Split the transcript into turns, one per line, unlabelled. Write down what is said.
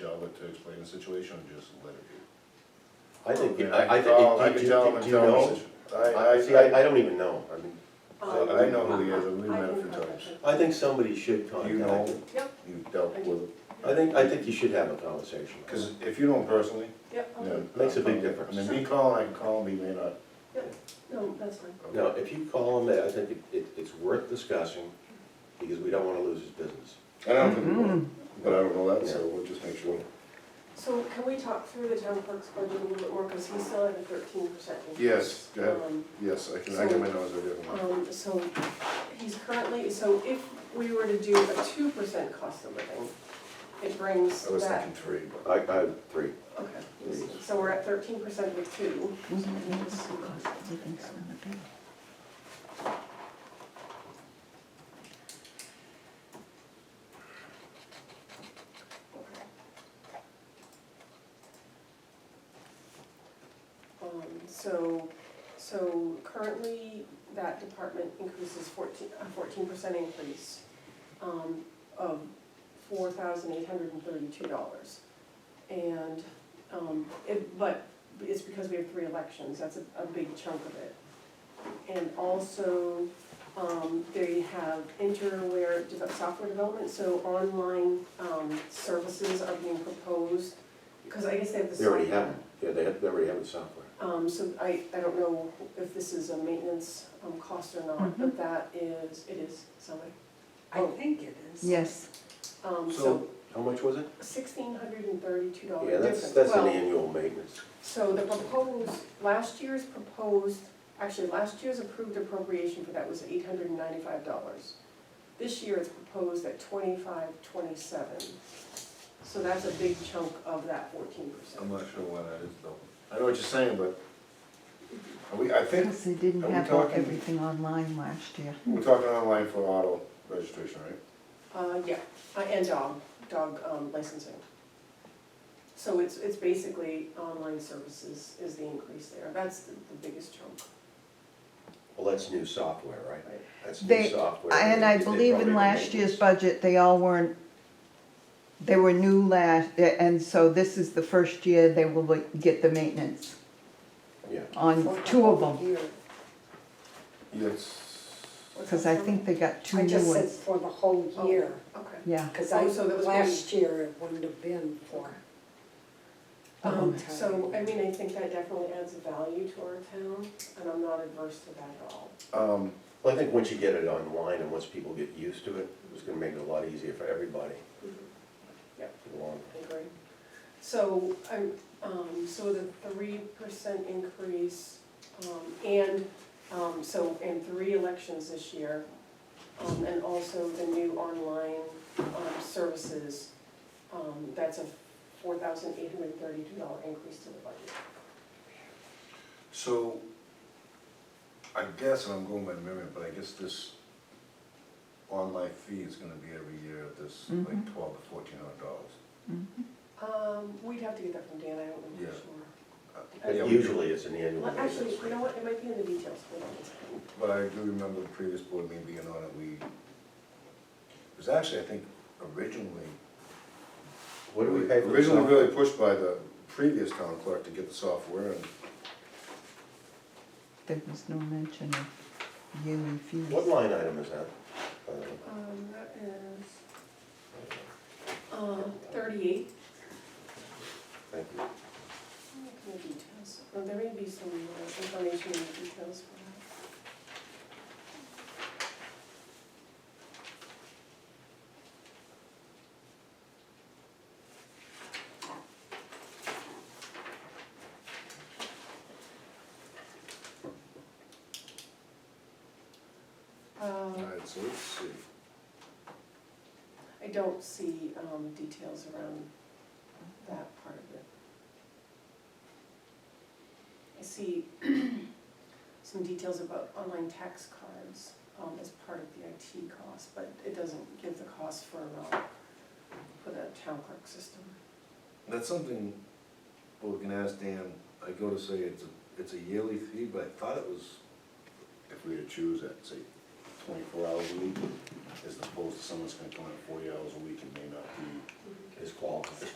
public to explain the situation or just let it be?
I think,
And
I, I
call- I
think, do,
can
do,
tell him and
do you
tell him
know?
it's-
I, see, I, I don't even know, I mean,
I, I know who he is, I've met him a few times.
I think somebody should
Do you know
contact him.
him?
Yep.
You've dealt with him?
I think, I think you should have a conversation.
Because if you know him personally,
Yep,
yeah.
okay.
Makes a big
I mean, me calling, I can call him, he may not.
no, that's fine.
Now, if you call him, I think it, it, it's worth discussing, because we don't wanna lose his business.
And I don't think, he will, but I don't know that, so we'll just make sure.
So can we talk through the town clerk's budget a little bit more, because he's still at a thirteen percent increase?
Yes, go ahead.
Um,
Yes, I can, I can, I know,
Um, so he's currently, so if we were to do a two percent cost of living, it brings
I was
that,
thinking three, but.
I, I, three.
okay. So we're at thirteen percent with two. Um, so, so currently, that department increases fourteen, a fourteen percent increase, um, of four thousand eight hundred and thirty-two dollars. And, um, it, but it's because we have three elections, that's a, a big chunk of it. And also, um, they have interware dev- software development, so online, um, services are being proposed, because I guess they have the
They
software.
already have, 'em. yeah, they have, they already have the software.
Um, so I, I don't know if this is a maintenance, um, cost or not, but that is, it is something.
Mm-hmm. I think it is.
Yes,
Um, so
So, how much was it?
sixteen hundred and thirty-two dollar
Yeah,
difference.
that's, that's an
Well,
annual maintenance.
So the proposed, last year's proposed, actually, last year's approved appropriation for that was eight hundred and ninety-five dollars. This year it's proposed at twenty-five, twenty-seven. So that's a big chunk of that fourteen
I'm
percent.
not sure why that is though. I know what you're saying, but are we, I think,
because they didn't
Are we
have
talking-
everything online last year.
we're talking online for auto registration, right?
Uh, yeah, uh, and dog, dog um, licensing. So it's, it's basically online services is the increase there, that's the the biggest chunk.
Well, that's new software, right? That's new
They-
software.
And I
They- they
believe
probably
in
do
last year's
maintenance.
budget, they all weren't, they were new last, and so this is the first year they will like, get the maintenance
Yeah,
on Um, two of them.
Yes.
Because I think they got two
I
new
just said
ones.
for the whole year,
Okay.
Yeah,
because
Oh,
I,
so that Oh. was
last year it wouldn't have been for.
Um,
Um,
so, I mean, I think that definitely adds value to our town, and I'm not adverse to that at all.
Um,
well, I think once you get it online and once people get used to it, it's gonna make it a lot easier for everybody.
Yep.
in the long
I agree. So, I'm, um, so the three percent increase, um, and, um, so, and three elections this year, um, and also the new online, um, services, um, that's a four thousand eight hundred and thirty-two dollar increase to the budget.
so I guess, and I'm going by memory, but I guess this online fee is gonna be every year at this like
Mhm.
twelve to fourteen hundred dollars.
Um, we'd have to get that from Dan, I don't know
Yeah.
for sure.
But Uh, Usually it's an annual
Well,
maintenance.
actually, you know what, it might be in the details, hold on a second.
But I do remember the previous board meeting being on it, we, it was actually, I think, originally
What do we pay for the
Originally
software?
really pushed by the previous town clerk to get the software and
there was no mention of yearly fees.
What line item is that? Uh,
Um, that is, uh, thirty-eight.
Thank you.
Look in the details, well, there may be some uh, information in the details for that. Um,
Alright, so let's see.
I don't see um, details around that part of it. I see some details about online tax cards um, as part of the IT cost, but it doesn't give the cost for, um, for the town clerk system.
That's something we can ask Dan, I go to say it's a, it's a yearly fee, but I thought it was, if we were to choose that, say twenty-four hours a week, as opposed to someone's gonna come in forty hours a week and may not be.
It's qual, it's